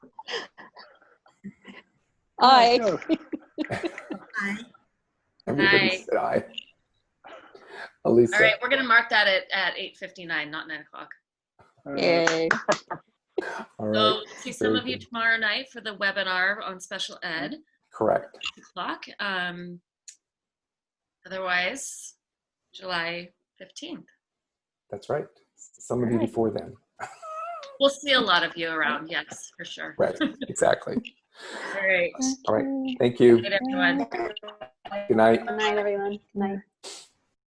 Aye. Aye. Everybody Aye. said aye. All Elisa, right, we're gonna mark that at, at eight fifty-nine, not nine o'clock. Yay. all right, So we'll see some very of you good. tomorrow night for the webinar on special ed, correct. six o'clock. Um, otherwise, July fifteenth. That's right. Some of you Alright. before then. We'll see a lot of you around, yes, for sure. Right, exactly. All right, All right. Thank you. good everyone. Good night. Good night, everyone. Good night.